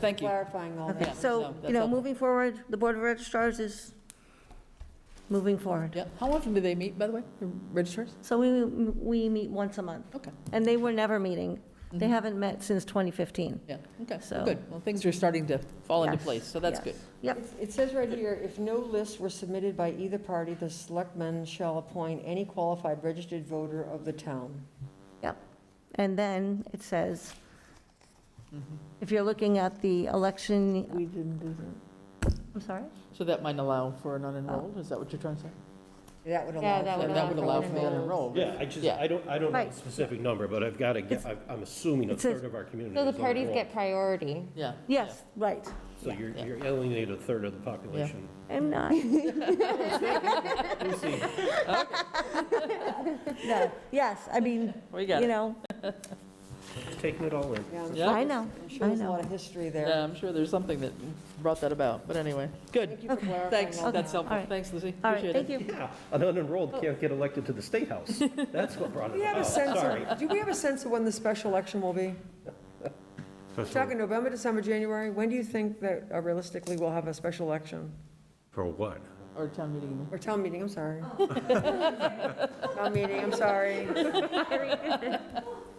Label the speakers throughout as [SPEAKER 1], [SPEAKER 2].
[SPEAKER 1] Thank you.
[SPEAKER 2] clarifying all
[SPEAKER 1] Yeah,
[SPEAKER 2] that.
[SPEAKER 1] no,
[SPEAKER 3] So,
[SPEAKER 1] that's
[SPEAKER 3] you know,
[SPEAKER 1] helpful.
[SPEAKER 3] moving forward, the Board of registrars is moving forward.
[SPEAKER 1] Yeah, how often do they meet, by the way, the registrars?
[SPEAKER 3] So we, we meet once a month,
[SPEAKER 1] Okay, Mm-hmm.
[SPEAKER 3] and they were never meeting. They haven't met since 2015.
[SPEAKER 1] yeah, okay,
[SPEAKER 3] So-
[SPEAKER 1] good. Well, things are starting to fall into
[SPEAKER 3] Yes,
[SPEAKER 1] place, so that's
[SPEAKER 3] yes.
[SPEAKER 1] good.
[SPEAKER 3] Yep,
[SPEAKER 2] It says right here, if no lists were submitted by either party, the selectmen shall appoint any qualified registered voter of the town.
[SPEAKER 3] yep. And then it says,
[SPEAKER 1] Mm-hmm.
[SPEAKER 3] if you're looking at the election,
[SPEAKER 2] We didn't do that.
[SPEAKER 3] I'm sorry?
[SPEAKER 1] So that might allow for an unenrolled,
[SPEAKER 3] Oh.
[SPEAKER 1] is that what you're trying to say?
[SPEAKER 2] That would
[SPEAKER 3] Yeah,
[SPEAKER 2] allow.
[SPEAKER 3] that
[SPEAKER 2] for-
[SPEAKER 3] would
[SPEAKER 1] That would allow for an unenrolled.
[SPEAKER 4] Yeah, I just,
[SPEAKER 1] Yeah.
[SPEAKER 4] I don't, I don't know
[SPEAKER 3] Right.
[SPEAKER 4] the specific number, but I've got to, get. I've- I'm assuming a
[SPEAKER 3] It says-
[SPEAKER 4] third of our community
[SPEAKER 5] So the
[SPEAKER 4] is on
[SPEAKER 5] parties
[SPEAKER 4] enroll.
[SPEAKER 5] get priority.
[SPEAKER 1] Yeah.
[SPEAKER 3] Yes, right.
[SPEAKER 4] So you're,
[SPEAKER 1] yeah.
[SPEAKER 4] you're alienating a third of the population.
[SPEAKER 3] I'm not.
[SPEAKER 4] We'll see.
[SPEAKER 3] No, yes, I mean,
[SPEAKER 1] We got it.
[SPEAKER 3] you know,
[SPEAKER 4] Just taking it all in.
[SPEAKER 2] Yeah, I'm
[SPEAKER 1] Yeah.
[SPEAKER 2] sure-
[SPEAKER 3] I know,
[SPEAKER 2] I'm sure
[SPEAKER 3] I
[SPEAKER 2] there's a
[SPEAKER 3] know.
[SPEAKER 2] lot of history there.
[SPEAKER 1] Yeah, I'm sure there's something that brought that about, but anyway, good.
[SPEAKER 2] Thank you for
[SPEAKER 3] Okay.
[SPEAKER 2] clarifying
[SPEAKER 1] Thanks,
[SPEAKER 2] all
[SPEAKER 1] that's
[SPEAKER 2] that.
[SPEAKER 3] All
[SPEAKER 1] helpful.
[SPEAKER 3] right.
[SPEAKER 1] Thanks, Lizzie,
[SPEAKER 3] All right,
[SPEAKER 1] appreciate
[SPEAKER 3] thank
[SPEAKER 1] it.
[SPEAKER 3] you.
[SPEAKER 4] Yeah, an unenrolled can't get elected to the state house. That's what brought
[SPEAKER 2] Do
[SPEAKER 4] it
[SPEAKER 2] we have a
[SPEAKER 4] about,
[SPEAKER 2] sense
[SPEAKER 4] sorry.
[SPEAKER 2] of, do we have a sense of when the special election will be? Talking November, December, January, when do you think that uh, realistically we'll have a special election?
[SPEAKER 4] For what?
[SPEAKER 1] Or town meeting.
[SPEAKER 2] Or town meeting, I'm sorry.
[SPEAKER 5] Oh.
[SPEAKER 2] Town meeting, I'm sorry. Uh,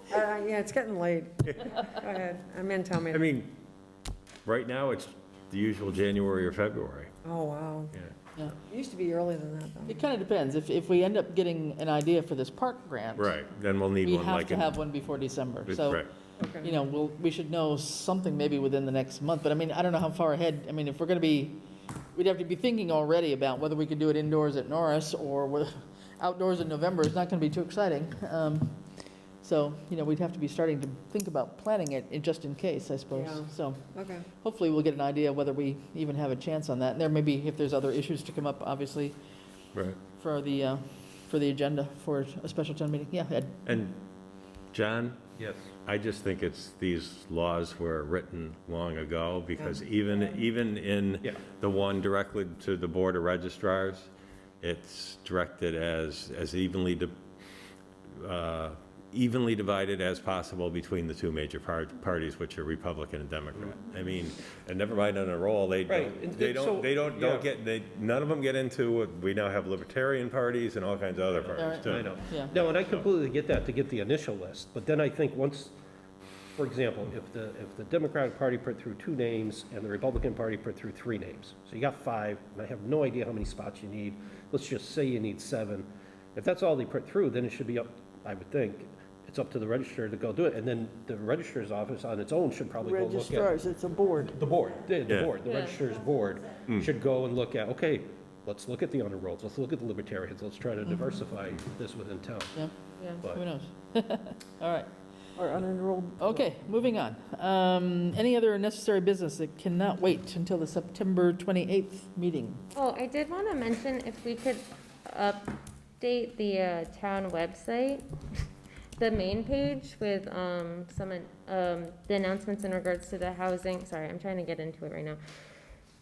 [SPEAKER 2] Yeah, it's getting late. Go ahead, I'm in town
[SPEAKER 6] I
[SPEAKER 2] meeting.
[SPEAKER 6] mean, right now, it's the usual January or February.
[SPEAKER 2] Oh, wow.
[SPEAKER 6] Yeah.
[SPEAKER 2] It used to be earlier than that, though.
[SPEAKER 1] It kind of depends. If, if we end up getting an idea for this park grant.
[SPEAKER 6] Right, then we'll need
[SPEAKER 1] We
[SPEAKER 6] one
[SPEAKER 1] have
[SPEAKER 6] like
[SPEAKER 1] to
[SPEAKER 6] in...
[SPEAKER 1] have one before December,
[SPEAKER 6] Right.
[SPEAKER 1] so. you
[SPEAKER 2] Okay.
[SPEAKER 1] know, we'll, we should know something maybe within the next month, but I mean, I don't know how far ahead, I mean, if we're gonna be, we'd have to be thinking already about whether we could do it indoors at Norris or whe- outdoors in November, it's not gonna be too exciting. Um, So, you know, we'd have to be starting to think about planning it, it- just in case, I suppose.
[SPEAKER 2] Yeah.
[SPEAKER 1] So
[SPEAKER 2] Okay.
[SPEAKER 1] hopefully we'll get an idea whether we even have a chance on that. And there may be, if there's other issues to come up, obviously,
[SPEAKER 6] Right.
[SPEAKER 1] for the, uh, for the agenda for a special town meeting, yeah, Ed.
[SPEAKER 6] And, John,
[SPEAKER 4] Yes.
[SPEAKER 6] I just think it's, these laws were written long ago, because even, even
[SPEAKER 4] Yeah.
[SPEAKER 6] in the one directly to the Board of registrars, it's directed as, as evenly, di- uh, evenly divided as possible between the two major par- parties, which are Republican and Democrat. I mean, and never mind on a roll, they
[SPEAKER 4] Right, and-
[SPEAKER 6] don't, they
[SPEAKER 4] and so-
[SPEAKER 6] don't, they don't,
[SPEAKER 4] yeah.
[SPEAKER 6] don't get, they, none of them get into, what we now have libertarian parties and all kinds of other parties,
[SPEAKER 4] I
[SPEAKER 6] too.
[SPEAKER 4] know.
[SPEAKER 1] Yeah.
[SPEAKER 4] No, and I completely get that, to get the initial list, but then I think once, for example, if the, if the Democratic Party put through two names and the Republican Party put through three names, so you got five, and I have no idea how many spots you need, let's just say you need seven. If that's all they put through, then it should be up, I would think, it's up to the registrar to go do it, and then the registrar's office on its own should probably go look at.
[SPEAKER 1] Registrars, it's a board.
[SPEAKER 4] The board, the the
[SPEAKER 6] Yeah.
[SPEAKER 4] board, the registrar's board should go and look at, okay, let's look at the honor rolls, let's look at the libertarians, let's try to diversify this within town.
[SPEAKER 1] Yeah.
[SPEAKER 4] But-
[SPEAKER 1] Who knows? All right. Or unenrolled. Okay, moving on. Um, Any other necessary business that cannot wait until the September 28th meeting?
[SPEAKER 5] Oh, I did want to mention if we could update the uh, town website, the main page with um, some, um, the announcements in regards to the housing, sorry, I'm trying to get into it right now.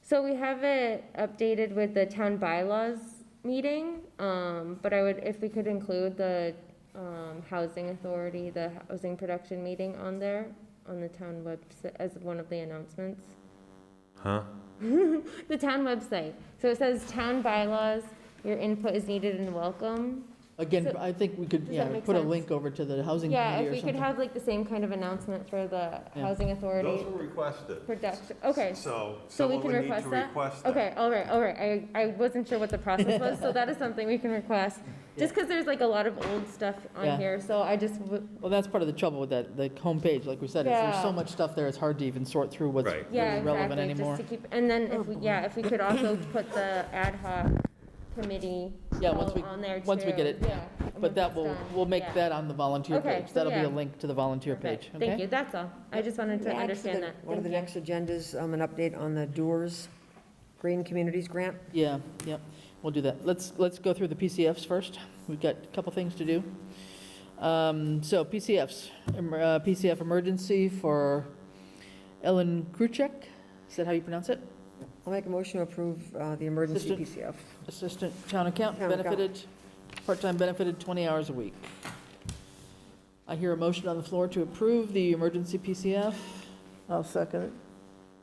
[SPEAKER 5] So we have it updated with the town bylaws meeting, um, but I would, if we could include the um, housing authority, the housing production meeting on there, on the town website, as one of the announcements.
[SPEAKER 6] Huh?
[SPEAKER 5] The town website. So it says town bylaws, your input is needed and welcome.
[SPEAKER 1] Again,
[SPEAKER 5] So-
[SPEAKER 1] I think we could,
[SPEAKER 5] Does
[SPEAKER 1] yeah,
[SPEAKER 5] that make
[SPEAKER 1] put a
[SPEAKER 5] sense?
[SPEAKER 1] link over to the housing
[SPEAKER 5] Yeah,
[SPEAKER 1] committee E
[SPEAKER 5] if
[SPEAKER 1] or
[SPEAKER 5] we could
[SPEAKER 1] something.
[SPEAKER 5] have like the same kind of announcement for the
[SPEAKER 1] Yeah.
[SPEAKER 5] housing authority
[SPEAKER 6] requested.
[SPEAKER 5] production, okay.
[SPEAKER 6] So
[SPEAKER 5] So we can request that? Okay, all right, all right. I, I wasn't sure what the process was, so that is something we can request. Just because there's like a lot of old stuff
[SPEAKER 1] Yeah.
[SPEAKER 5] on here, so I just, w-
[SPEAKER 1] Well, that's part of the trouble with that, the homepage, like we said, is there's so
[SPEAKER 5] Yeah.
[SPEAKER 1] much stuff there, it's hard to even sort through what's
[SPEAKER 6] Right.
[SPEAKER 5] yeah,
[SPEAKER 1] really relevant
[SPEAKER 5] exactly,
[SPEAKER 1] anymore. Oh,
[SPEAKER 5] just to keep, and then if we, yeah, if we could also put the ad hoc committee
[SPEAKER 1] Yeah, once
[SPEAKER 5] all
[SPEAKER 1] we-
[SPEAKER 5] on there too.
[SPEAKER 1] once we get it-
[SPEAKER 5] Yeah.
[SPEAKER 1] But
[SPEAKER 5] once
[SPEAKER 1] that
[SPEAKER 5] it's
[SPEAKER 1] will,
[SPEAKER 5] done,
[SPEAKER 1] we'll make
[SPEAKER 5] yeah.
[SPEAKER 1] that on the volunteer
[SPEAKER 5] Okay,
[SPEAKER 1] page.
[SPEAKER 5] so
[SPEAKER 1] That'll be a
[SPEAKER 5] yeah.
[SPEAKER 1] link to the volunteer page,
[SPEAKER 5] Perfect.
[SPEAKER 1] okay?
[SPEAKER 5] Thank you, that's all. I just wanted to
[SPEAKER 2] Add to the-
[SPEAKER 5] understand that.
[SPEAKER 2] One of the
[SPEAKER 5] Thank you.
[SPEAKER 2] next agendas, um, an update on the Doors Green Communities Grant.
[SPEAKER 1] Yeah, yeah, we'll do that. Let's, let's go through the PCFs first. We've got a couple things to do. Um, So PCFs, em- uh, PCF emergency for Ellen Kruchek, is that how you pronounce it?
[SPEAKER 2] I'll make a motion to approve uh, the emergency
[SPEAKER 1] Assistant.
[SPEAKER 2] PCF.
[SPEAKER 1] Assistant Town Accountant,
[SPEAKER 2] Town accountant.
[SPEAKER 1] benefited, part-time benefited, 20 hours a week. I hear a motion on the floor to approve the emergency PCF.
[SPEAKER 7] I'll second it.